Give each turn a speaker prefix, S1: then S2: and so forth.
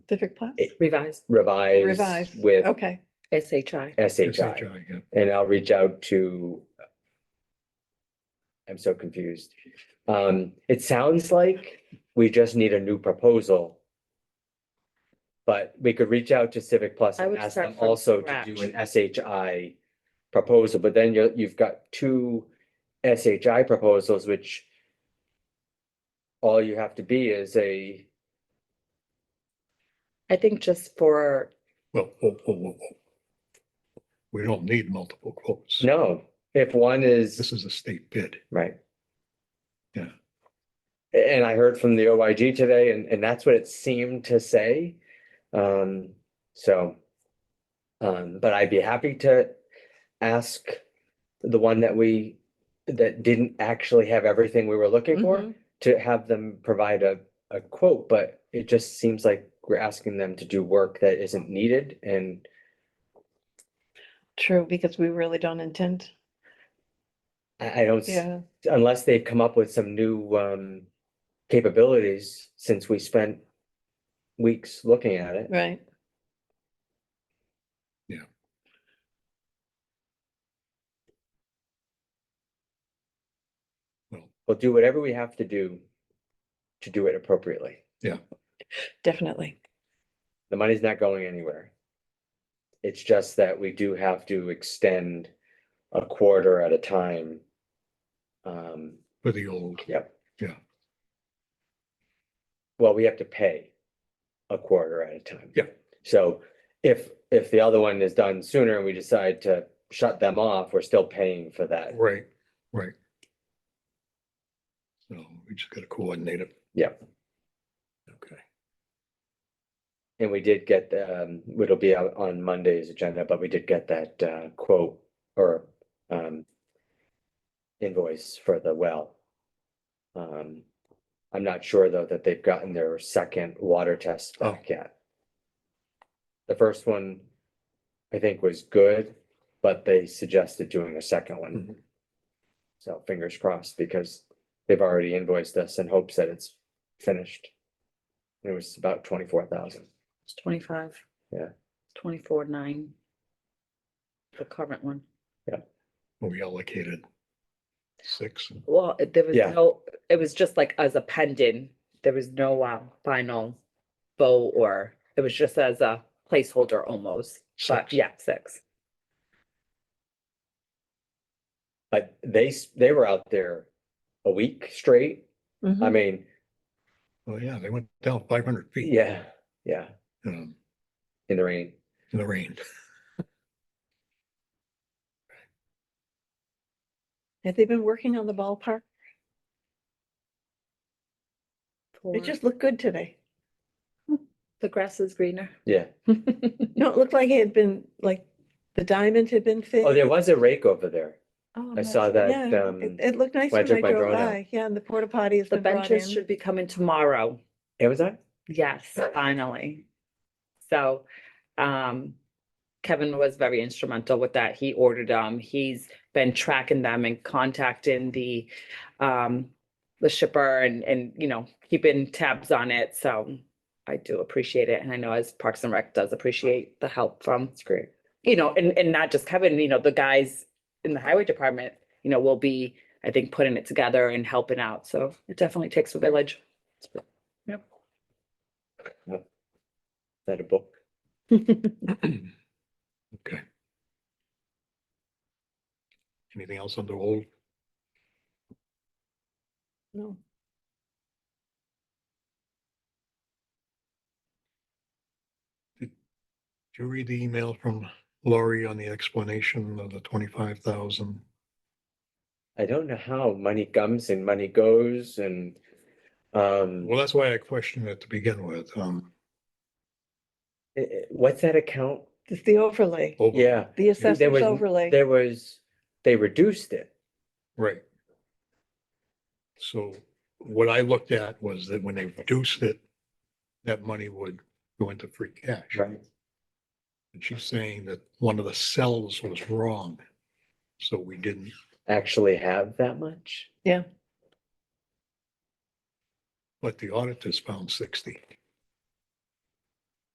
S1: Civic Plus?
S2: It-
S3: revised
S1: Revised.
S2: revised with
S1: Okay,
S3: SHI.
S2: SHI.
S4: yeah.
S2: And I'll reach out to. I'm so confused. Um, it sounds like we just need a new proposal. But we could reach out to Civic Plus
S3: I
S2: and
S3: would
S2: ask
S3: start
S2: them
S3: from
S2: also to do
S3: scratch.
S2: an SHI proposal, but then you're, you've got two SHI proposals, which all you have to be is a,
S3: I think just for,
S4: Well, whoa, whoa, whoa, whoa. We don't need multiple quotes.
S2: no, if one is.
S4: This is a state bid.
S2: Right.
S4: Yeah.
S2: A- And I heard from the OIG today and, and that's what it seemed to say. Um, so. Um, but I'd be happy to ask the one that we, that didn't actually have everything we were looking for.
S3: Mhm.
S2: To have them provide a, a quote, but it just seems like we're asking them to do work that isn't needed and,
S1: true, because we really don't intend,
S2: I, I don't. s-
S1: yeah,
S2: unless they've come up with some new um capabilities since we spent weeks looking at it.
S1: right.
S2: We'll do whatever we have to do to do it appropriately.
S1: Definitely.
S2: The money's not going anywhere. It's just that we do have to extend a quarter at a time. Um,
S4: for the old,
S2: yep.
S4: Yeah.
S2: Well, we have to pay a quarter at a time.
S4: Yeah.
S2: So if, if the other one is done sooner and we decide to shut them off, we're still paying for that.
S4: right, right. So we just gotta coordinate it.
S2: Yep.
S4: Okay,
S2: And we did get, the, um, it'll be out on Monday's agenda, but we did get that, uh, quote or, um, invoice for the well. Um, I'm not sure though that they've gotten their second water test
S4: Oh.
S2: back yet. The first one, I think was good, but they suggested doing a second one.
S4: Mhm.
S2: So fingers crossed because they've already invoiced us in hopes that it's finished. It was about twenty-four thousand.
S3: it's twenty-five.
S2: Yeah.
S3: Twenty-four, nine. The current one.
S4: Well, we allocated six.
S3: Well, it- there was
S2: Yeah.
S3: no, it was just like as a pendant. There was no uh, final vote or it was just as a placeholder almost. But
S4: Six.
S3: yeah, six.
S2: But they, s- they were out there a week straight. I
S1: Mhm.
S2: mean,
S4: Well, Oh, yeah, they went down five hundred feet.
S2: yeah, yeah,
S4: Um,
S2: in the rain.
S4: in the rain.
S1: Have they been working on the ballpark? It
S3: For-
S1: just looked good today.
S3: the grass is greener.
S2: Yeah.
S1: No, it looked like it had been, like, the diamond had been
S2: Oh,
S1: fixed.
S2: there was a rake over there. I saw that,
S1: Oh, Yeah,
S2: um,
S1: it, it looked nice
S2: when I
S1: when
S2: took
S1: I
S2: my
S1: drove
S2: drone out.
S1: by. Yeah, and the porta potty has
S3: The
S1: been brought
S3: benches
S1: in.
S3: should be coming tomorrow.
S2: Amazon?
S3: Yes, finally. So, um, Kevin was very instrumental with that. He ordered them. He's been tracking them and contacting the, um, the shipper and, and, you know, keeping tabs on it. So I do appreciate it. And I know as Parks and Rec does appreciate the help from,
S2: It's great.
S3: you know, and, and not just Kevin, you know, the guys in the highway department, you know, will be, I think, putting it together and helping out. So it definitely takes a village.
S2: Is that a book?
S4: Okay. Anything else under old?
S1: No.
S4: Did you read the email from Laurie on the explanation of the twenty-five thousand?
S2: I don't know how money comes and money goes and, um,
S4: Well, that's why I questioned it to begin with, um.
S2: i- i- what's that account?
S1: It's the overlay,
S4: over-
S2: Yeah.
S1: the
S2: Oh, There
S1: assessors
S2: was,
S1: overlay.
S2: there was, they reduced it.
S4: Right. So what I looked at was that when they reduced it, that money would go into free cash. And she's saying that one of the cells was wrong, so we didn't,
S2: Actually have that much?
S4: but the auditors found sixty.